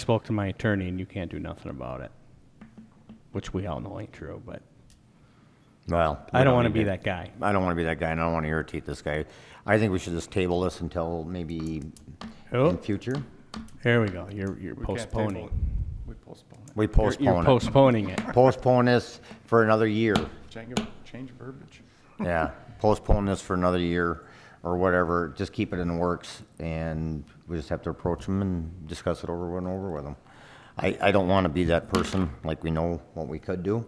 spoke to my attorney and you can't do nothing about it, which we all know ain't true, but Well. we I don't want to need be that guy. I don't want to be that guy, and I don't want to irritate this guy. I think we should just table this until maybe in Oh, future. there we go. You're, you're We can't table postponing. it. We postpone it. We You're- You're postpone it. postponing it. Postpone this for another year. Change, change verbiage. Yeah, postpone this for another year or whatever. Just keep it in the works, and we just have to approach them and discuss it over and over with them. I, I don't want to be that person, like we know what we could do,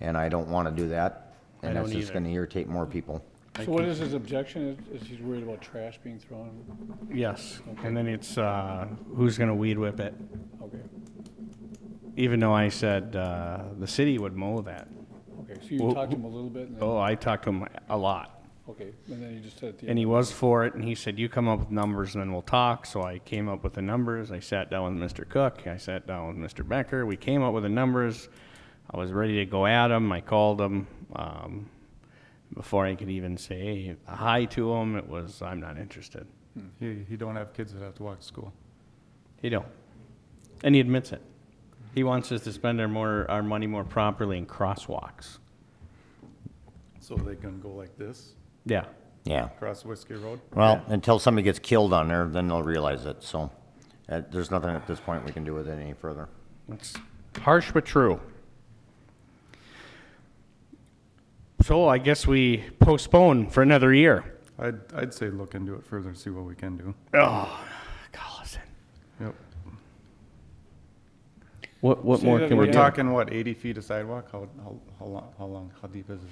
and I don't want to do that. I And that's don't just either. going to irritate more people. So what is his objection? Is is he's worried about trash being thrown? Yes. And then it's, uh, who's going to weed whip it? Okay, Even though I said, uh, the city would mow that. okay, so Well, you talked to him a little bit and then, Oh, I talked to him a lot. okay, and then you just said at the And end. he was for it, and he said, "You come up with numbers, and then we'll talk." So I came up with the numbers. I sat down with Mr. Cook. I sat down with Mr. Becker. We came up with the numbers. I was ready to go at him. I called him um, before I could even say hi to him. It was, "I'm not interested." He, he don't have kids that have to walk to school. He don't, and he admits it. He wants us to spend our more our money more properly in crosswalks. So they can go like this, Yeah, Yeah. across Whiskey Road? Well, until somebody gets killed on there, then they'll realize it, so, uh, there's nothing at this point we can do with it any further. It's harsh but true. So I guess we postpone for another year. I'd, I'd say look into it further and see what we can do. Oh, Collison. Yep. What, what Say more that can we We're do? again. talking, what, eighty feet of sidewalk? How, how, how long, how long, how deep is this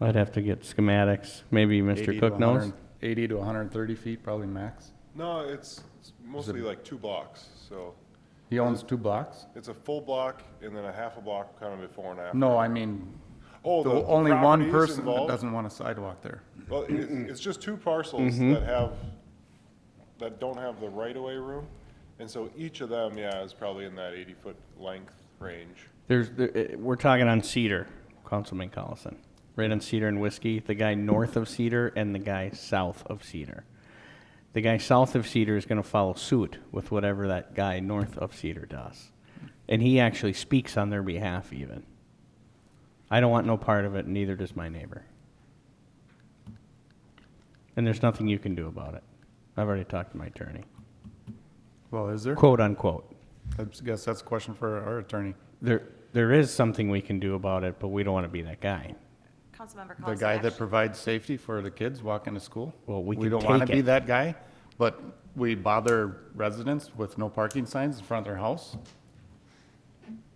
lot? I'd have to get schematics. Maybe 80 Mr. to Cook knows. 100 Eighty to hundred and thirty feet, probably max. No, it's it's mostly like two blocks, so He owns two blocks? it's a full block and then a half a block kind of before and after. No, I mean, Oh, the- the only one properties person that involved? doesn't want a sidewalk there. Well, it- it's just two parcels Mm-hmm. that have, that don't have the right-of-way room. And so each of them, yeah, is probably in that eighty-foot length range. There's, there, eh, we're talking on Cedar, Councilman Collison. Right on Cedar and Whiskey, the guy north of Cedar and the guy south of Cedar. The guy south of Cedar is gonna follow suit with whatever that guy north of Cedar does. And he actually speaks on their behalf even. I don't want no part of it, neither does my neighbor. And there's nothing you can do about it. I've already talked to my attorney, Well, is there? quote unquote. I guess that's a question for our attorney. There, there is something we can do about it, but we don't wanna be that guy. Councilmember The Collison. guy that actu- provides safety for the kids walking to school? Well, we We can don't want take to be it. that guy, but we bother residents with no parking signs in front of their house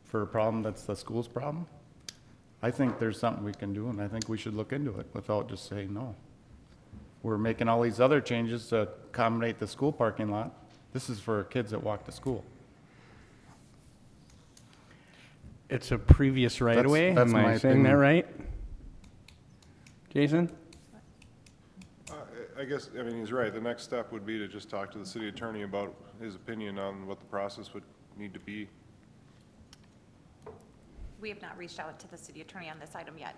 for a problem that's the school's problem? I think there's something we can do, and I think we should look into it without just saying no. We're making all these other changes to accommodate the school parking lot. This is for kids that walk to school. It's a previous right of way. that's Am my I saying that opinion. right? Jason? Uh, I I guess, I mean, he's right. The next step would be to just talk to the city attorney about his opinion on what the process would need to be. We have not reached out to the city attorney on this item yet.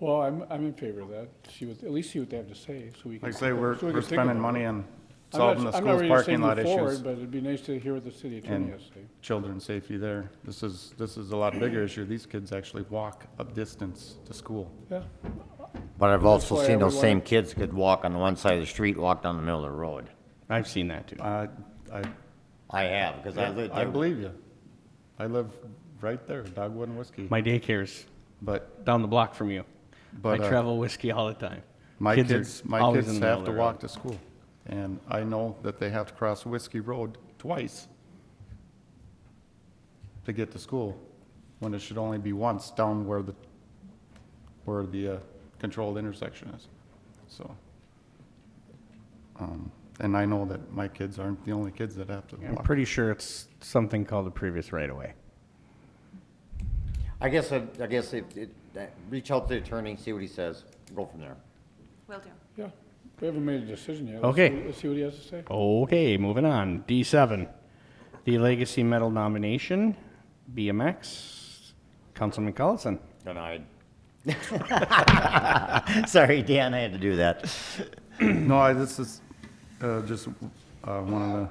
Well, I'm, I'm in favor of that. See what, at least see what they have to say so we can. Like I say, we're, so we we're can think spending about money it. on I'm not- solving the I'm school's not ready to say parking lot move issues. forward, But it'd be nice to hear what the city attorney and has to say. children's safety there. This is, this is a lot bigger issue. These kids actually walk a distance to school. Yeah, But I've also why I seen those would same wanna- kids could walk on the one side of the street, walk down the middle of the road. I've seen that too. Uh, I, I have, because I lived I there. believe you. I live right there, Dogwood and Whiskey. My daycare's But down the block from you. But, I uh, travel whiskey all the time. my are kids, my always kids in the have to middle of the walk road. to school. And I know that they have to cross Whiskey Road twice to get to school, when it should only be once down where the, where the uh, controlled intersection is, so. um, And I know that my kids aren't the only kids that have to I'm walk. pretty sure it's something called the previous right of way. I guess, I I guess if, it- that- reach out to the attorney, see what he says, go from there. Will do. yeah. We haven't made a decision yet. Let's Okay. see- Let's see what he has to say. Okay, moving on. D7, the Legacy Medal nomination, BMX, Councilman Collison. Denied. Sorry, Dan, I had to do that. No, I, this is uh, just uh, one of the